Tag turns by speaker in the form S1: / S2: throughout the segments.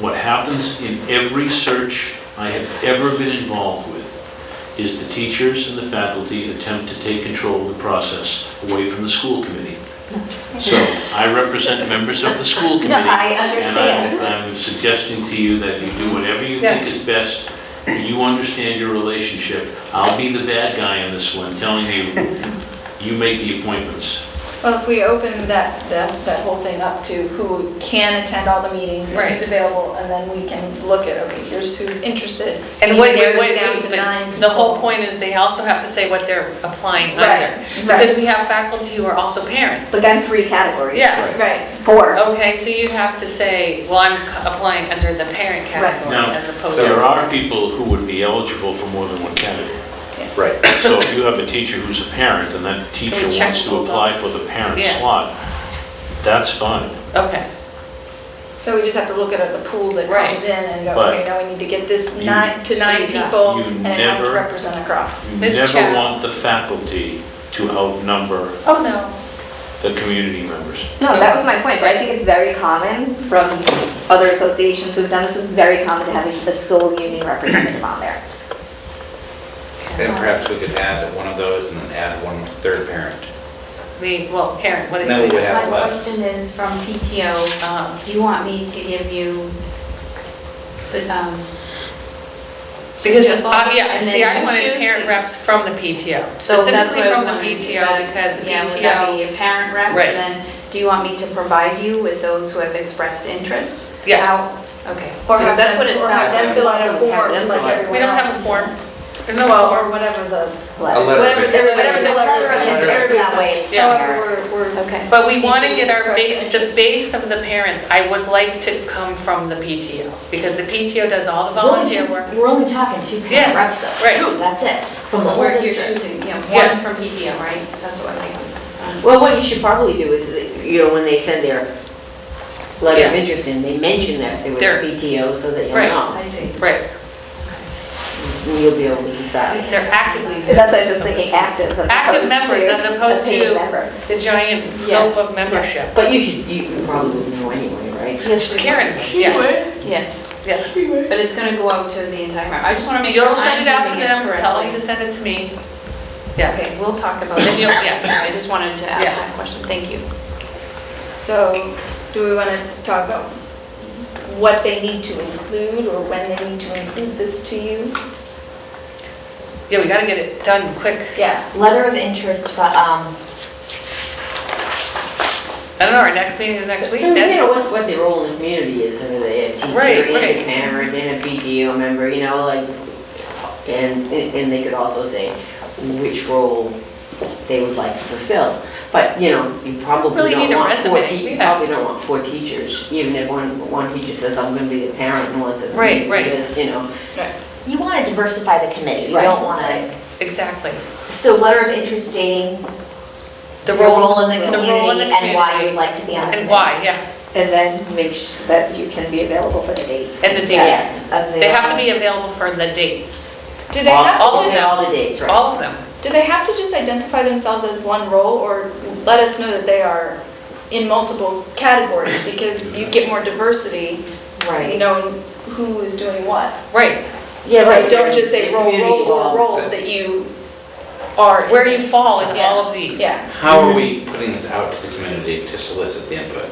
S1: what happens in every search I have ever been involved with is the teachers and the faculty attempt to take control of the process away from the school committee. So I represent members of the school
S2: No,
S1: committee.
S2: I
S1: And I'm-
S2: understand.
S1: I'm suggesting to you that you do whatever you think
S2: Yeah.
S1: is best, and you understand your relationship. I'll be the bad guy in this one, telling you, you make the appointments.
S3: Well, if we open that, that, that whole thing up to who can attend all the meetings,
S2: Right.
S3: who's available, and then we can look at, okay, here's who's interested.
S2: And what,
S3: narrow it
S2: what,
S3: down to nine
S2: but the whole
S3: people.
S2: point is they also have to say what they're applying
S3: Right,
S2: under.
S3: right.
S2: Because we have faculty who are also parents.
S4: But then three categories.
S2: Yeah. Oh.
S3: Right,
S4: Four.
S2: Okay, so you'd have to say, well, I'm c- applying under the parent
S3: Right.
S2: category
S1: Now,
S2: as opposed to...
S1: there are people who would be eligible for more than one category.
S5: Right.
S1: So if you have a teacher who's a parent, and that teacher
S2: They check
S1: wants to
S2: both
S1: apply for the parent
S2: Yeah.
S1: slot, that's fine.
S2: Okay,
S3: so we just have to look at the pool that
S2: Right.
S3: comes in and go,
S1: But
S3: okay, now we need to get this
S1: you-
S3: nine, to nine
S2: you
S3: people, and it has to
S1: never-
S3: represent across.
S1: You
S2: This
S1: never
S2: chap-
S1: want the faculty to outnumber
S2: oh, no.
S1: the community members.
S4: No, that was my point, but I think it's very common from other associations who've done this, it's very common to have a sole union representative on there.
S5: And perhaps we could add one of those and then add one third parent.
S2: The, well, Karen, what do
S5: Then we
S2: you
S5: would have
S6: My
S5: less.
S6: question is from PTO, um, do you want me to give you, um,
S2: Because,
S6: Just
S2: uh, yeah,
S6: and
S2: see, I
S6: then you
S2: wanted
S6: choose
S2: parent
S6: it.
S2: reps from the PTO,
S6: so that's
S2: specifically
S6: what
S2: from
S6: I was
S2: the
S6: wondering.
S2: PTO, because the
S6: Yeah, would that be
S2: PTO,
S6: a parent rep?
S2: Right.
S6: And then, do you want me to provide you with those who have expressed interest?
S2: Yeah.
S6: How- Okay.
S3: Or have
S6: That's
S3: them,
S6: what it
S3: or have
S6: sounds
S3: them
S6: like.
S3: fill out a
S6: Have
S3: form
S6: them
S3: like
S6: fill out.
S3: everyone
S2: we don't have
S3: else.
S2: a form. There's no
S3: Well, or
S2: form.
S3: whatever the,
S5: A letter.
S3: whatever,
S5: Perfect.
S3: whatever the
S4: Letter of intent, that way it's
S2: Yeah.
S4: clear.
S3: However, we're, we're.
S4: Okay.
S2: But we want to get our,
S3: Express
S2: ba- the
S3: interest.
S2: base of the parents, I would like to come from the PTO, because the PTO does all the volunteer work.
S7: We're only talking two
S2: Yeah,
S7: parent reps though.
S2: right.
S7: That's it, from the whole
S6: Where you're
S7: district.
S6: choosing, you know,
S2: Yeah.
S6: one from PTO, right? That's what I think. Um,
S8: Well, what you should probably do is, that, you know, when they send their letter of
S2: Yeah.
S8: interest in, they mention that they were
S2: They're-
S8: PTO so that you'll
S2: Right.
S8: know.
S6: I see.
S2: Right,
S8: And you'll be able to decide.
S2: they're actively.
S4: That's what I was just thinking, active. as
S2: Active
S4: opposed
S2: members
S4: to
S2: as opposed
S4: a paid
S2: to-
S4: member.
S2: The giant scope of membership.
S8: But you should, you you probably would know anyway, right?
S2: Yes, Karen, yeah,
S6: Yes,
S2: yeah.
S6: but it's going to go out to the entire, I just want to make sure
S2: You'll
S6: I'm
S2: send it out to
S6: doing it
S2: them, tell them
S6: correctly.
S2: to send it to me. Yeah.
S6: Okay, we'll talk about it.
S2: Then you'll- yeah.
S6: I just wanted to ask
S2: Yeah.
S6: that question. Thank you.
S3: So, do we want to talk about what they need to include, or when they need to include this to you?
S2: Yeah, we gotta get it done quick.
S3: Yeah.
S7: Letter of interest, but, um,
S2: I don't know, our next meeting is next week?
S8: You
S2: That's-
S8: know, what, what their role in the community is, whether they a
S2: Right,
S8: teacher and
S2: right.
S8: a parent and a PTO member, you know, like, and, and they could also say which role they would like to fulfill. But, you know, you
S2: Really
S8: probably
S2: need a
S8: don't want four,
S2: resume,
S8: te- you
S2: yeah.
S8: probably don't want four teachers, even if one, one teacher says, I'm gonna be the parent, and one says, I'm
S2: Right,
S8: gonna be
S2: right.
S8: this," you know.
S7: you want to diversify the committee. You
S8: Right.
S7: don't want to,
S2: Exactly.
S7: so letter of interest stating
S2: The
S7: your role in the
S2: the role in the
S7: community and why
S2: community.
S7: you'd like to be on the committee.
S2: And why, yeah.
S4: And then make sure that you can be available for the date.
S2: And the dates.
S4: Yes.
S2: They have to be available for the dates.
S3: Do they
S8: All-
S3: have
S2: all
S3: to
S2: of
S3: just,
S2: them.
S8: All the dates, right.
S2: All of them.
S3: do they have to just identify themselves as one role, or let us know that they are in multiple categories? Because you get more diversity,
S8: Right.
S3: you know, in who is doing what.
S2: Right.
S8: Yeah,
S3: So
S8: right.
S3: Don't just say
S8: The
S3: role,
S8: community
S3: role, or
S8: involved.
S3: roles that you are. in.
S2: Where you fall in all of
S3: Yeah,
S2: these.
S3: Yeah.
S5: How are we putting this out to the community to solicit the input?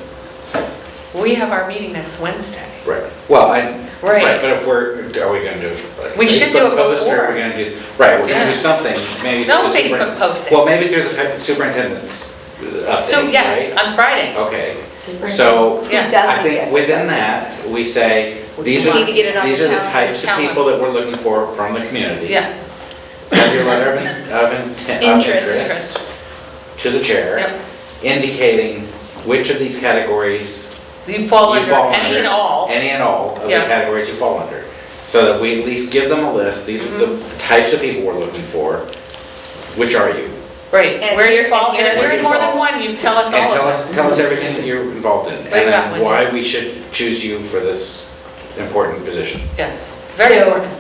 S2: We have our meeting next Wednesday.
S5: Right. Well, I,
S2: Right.
S5: right, but if we're, are we going to do? like,
S2: We should do it
S5: Facebook post, or
S2: before.
S5: Are we going to do, right, we're going to
S2: Yeah.
S5: do something, maybe.
S2: No
S5: through the
S2: Facebook
S5: superin-
S2: posting.
S5: Well, maybe through the fa- superintendent's uh,
S2: So,
S5: update,
S2: yes,
S5: right? Oh.
S2: on Friday.
S5: Okay, so
S2: Yeah.
S5: I think within that, we say, these
S2: We
S5: are,
S2: need to get it on
S5: these
S2: the
S5: are the
S2: calendar,
S5: types of
S2: calendar.
S5: people that we're looking for from the community.
S2: Yeah.
S5: Send your letter of in- of intent, of
S3: Interest.
S5: interest to the chair,
S2: Yep.
S5: indicating which of these categories
S2: You fall
S5: you
S2: under any and all.
S5: Any and all of the
S2: Yeah.
S5: categories you fall under. So that we at least give them a list, these are the
S2: Mm-hmm.
S5: types of people we're looking for, which are you?
S2: Right.
S3: And
S2: Where
S3: you're-
S2: you fall,
S3: and
S2: and if
S3: you're-
S2: you're in more than one, you tell us
S5: And
S2: all
S5: tell
S2: of
S5: us,
S2: them.
S5: tell us everything that you're involved in,
S2: Right,
S5: and
S2: that one.
S5: then why we should choose you for this important position.
S2: Yes, it's very
S7: So-
S2: important.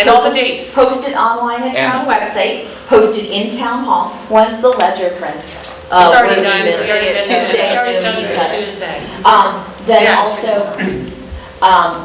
S2: And all the dates.
S7: Posted online at town
S5: And-
S7: website, posted in town hall, once the ledger print.
S8: Uh,
S2: It's already
S8: when we
S2: done,
S8: miss-
S2: it's already been,
S7: Tuesday. Um,
S2: it's already done, it's
S7: Tuesday.
S2: Tuesday.
S7: Um, Then
S2: Yeah.
S7: also, um,